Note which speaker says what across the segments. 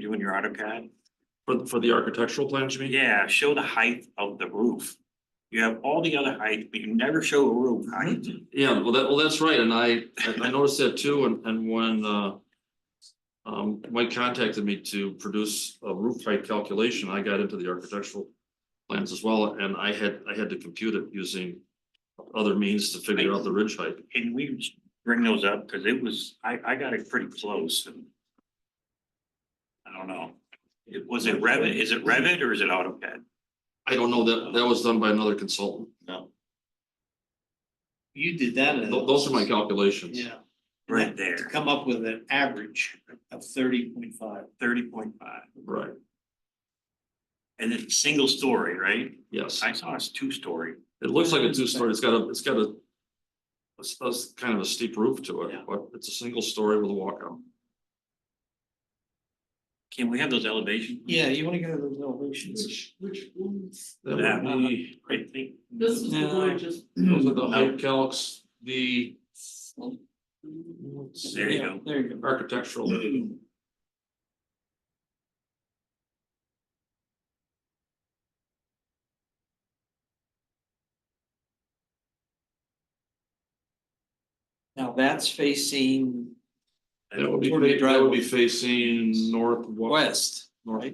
Speaker 1: you're doing your AutoCAD,
Speaker 2: For, for the architectural plans, you mean?
Speaker 1: yeah, show the height of the roof. You have all the other height, but you never show a roof height.
Speaker 2: Yeah, well, that, well, that's right, and I, I- I noticed that too, and, and when, uh. Um, Mike contacted me to produce a roof height calculation, I got into the architectural. Plans as well, and I had, I had to compute it using other means to figure out the ridge height.
Speaker 1: Can we bring those up? Cause it was, I, I got it pretty close and. I don't know. It, was it Revit? Is it Revit or is it AutoCAD?
Speaker 2: I don't know, that, that was done by another consultant,
Speaker 1: No.
Speaker 3: You did that.
Speaker 2: Tho-
Speaker 3: analysis.
Speaker 2: those are my calculations.
Speaker 3: Yeah.
Speaker 1: Right
Speaker 3: To
Speaker 1: there,
Speaker 3: come up with an average of thirty point five.
Speaker 1: thirty point five.
Speaker 2: Right,
Speaker 1: And it's single story, right?
Speaker 2: yes,
Speaker 1: I saw it's two story.
Speaker 2: it looks like a two-story, it's got a, it's got a. It's, it's kind of a steep roof to it,
Speaker 1: Yeah.
Speaker 2: but it's a single story with a walkout.
Speaker 1: Can we have those elevations?
Speaker 3: Yeah, you wanna go to those elevations?
Speaker 4: Which ones?
Speaker 2: That would
Speaker 1: Yeah.
Speaker 2: be-
Speaker 1: I think.
Speaker 4: This is the one I
Speaker 3: No.
Speaker 4: just.
Speaker 2: Those are the height calcs, the. let's see,
Speaker 1: There you
Speaker 3: Yeah,
Speaker 1: go.
Speaker 3: There you go.
Speaker 2: Architectural,
Speaker 3: Now that's facing
Speaker 1: Mm-hmm.
Speaker 2: that would be,
Speaker 3: Sort of
Speaker 2: that would be facing northwest.
Speaker 3: west,
Speaker 2: North.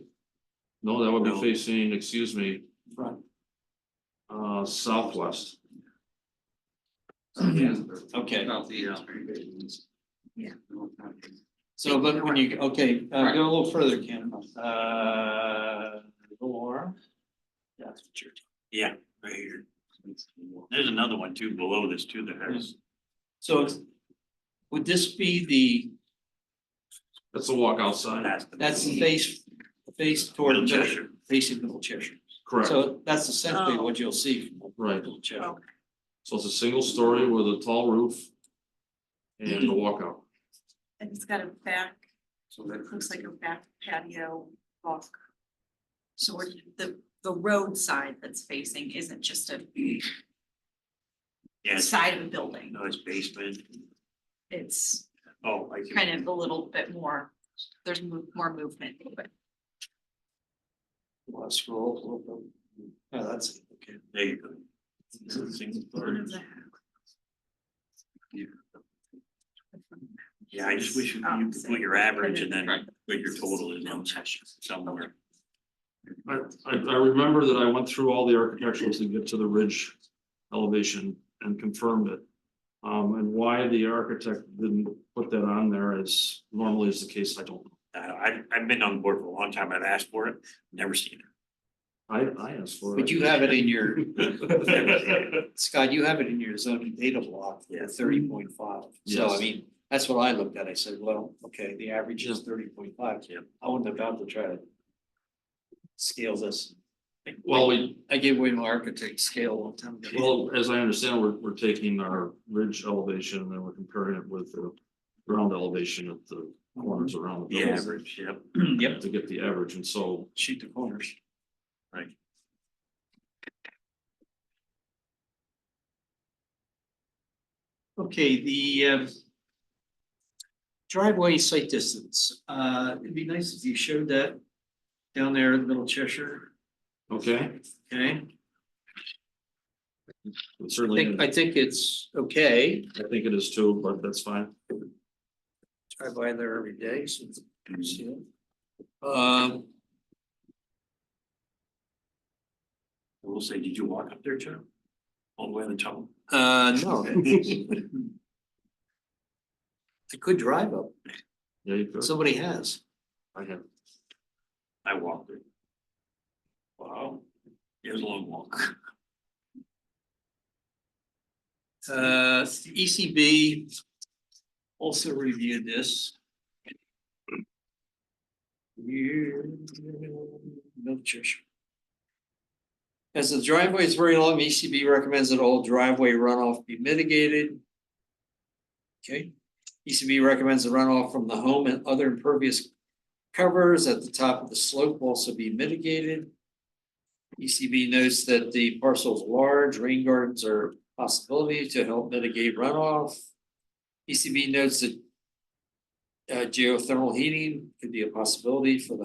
Speaker 2: No, that would be
Speaker 1: No.
Speaker 2: facing, excuse me,
Speaker 3: front.
Speaker 2: uh, southwest.
Speaker 3: Okay,
Speaker 4: Yeah.
Speaker 3: so look when you, okay, uh, go a little further, Ken. Uh, or. That's what you're.
Speaker 1: Yeah, right here. There's another one too below this too that has,
Speaker 3: So it's- would this be the,
Speaker 2: That's the walk outside,
Speaker 1: that's the.
Speaker 3: that's the face, face toward
Speaker 1: Middle
Speaker 3: Middle-
Speaker 1: Cheshire.
Speaker 3: facing Middle Cheshire.
Speaker 2: correct,
Speaker 3: So that's essentially
Speaker 4: Oh.
Speaker 3: what you'll see from
Speaker 2: right.
Speaker 3: Middle Cheshire.
Speaker 2: So it's a single story with a tall roof. And a walkout.
Speaker 4: And it's got a back, looks like a back patio walk. So where the, the road side that's facing isn't just a
Speaker 1: Yeah, it's-
Speaker 4: side of a building.
Speaker 1: no, it's basement.
Speaker 4: It's
Speaker 1: Oh, I see.
Speaker 4: kind of a little bit more, there's mo- more movement, but
Speaker 3: Well, Scroll. a little bit. Yeah,
Speaker 1: Oh,
Speaker 3: that's, okay.
Speaker 1: There you go. It's a single
Speaker 4: one
Speaker 1: story.
Speaker 4: of the-
Speaker 1: Yeah, I just wish you
Speaker 4: Um,
Speaker 1: you could put your average and then put your total in on somewhere.
Speaker 2: I, I, I remember that I went through all the architecturals to get to the ridge elevation and confirmed it. Um, and why the architect didn't put that on there is normally is the case, I don't, know.
Speaker 1: I, I've, I've been on board for a long time. I've asked for it, never seen
Speaker 2: I, I asked for it.
Speaker 3: But you have it in your,
Speaker 1: it.
Speaker 3: Scott, you have it in your zoning data block,
Speaker 1: Yeah.
Speaker 3: thirty point five. So I
Speaker 2: Yes.
Speaker 3: mean, that's what I looked at. I said, well, okay, the average is thirty point five.
Speaker 1: Yep.
Speaker 3: I wouldn't have bothered to try to scale this.
Speaker 2: Well, we,
Speaker 3: I gave away my architect scale one time. ago.
Speaker 2: well, as I understand, we're, we're taking our ridge elevation and then we're comparing it with the ground elevation at the corners around the
Speaker 1: The
Speaker 2: buildings
Speaker 1: average, yep.
Speaker 3: Yep,
Speaker 2: to get the average. And so
Speaker 3: shoot the corners. Okay, the um, driveway site distance, uh, it'd be nice if you showed that down there in Middle Cheshire,
Speaker 2: Okay,
Speaker 3: okay?
Speaker 2: it
Speaker 3: I
Speaker 2: certainly,
Speaker 3: think, I think it's okay,
Speaker 2: I think it is too, but that's fine.
Speaker 3: I drive by there every day, so it's see it. Um,
Speaker 1: I will say, did you walk up there, Chuck? All the way to the top?
Speaker 3: uh, no. I could drive up,
Speaker 2: Yeah, you could.
Speaker 3: somebody has.
Speaker 2: I have.
Speaker 1: I walked it. Wow, it was a long walk.
Speaker 3: Uh, ECB also reviewed this. You, no church. As the driveway is very long, ECB recommends that all driveway runoff be mitigated. Okay, ECB recommends the runoff from the home and other impervious covers at the top of the slope also be mitigated. ECB notes that the parcel is large, rain gardens are E possibility to help mitigate runoff. ECB notes that uh, geothermal heating could be a possibility for the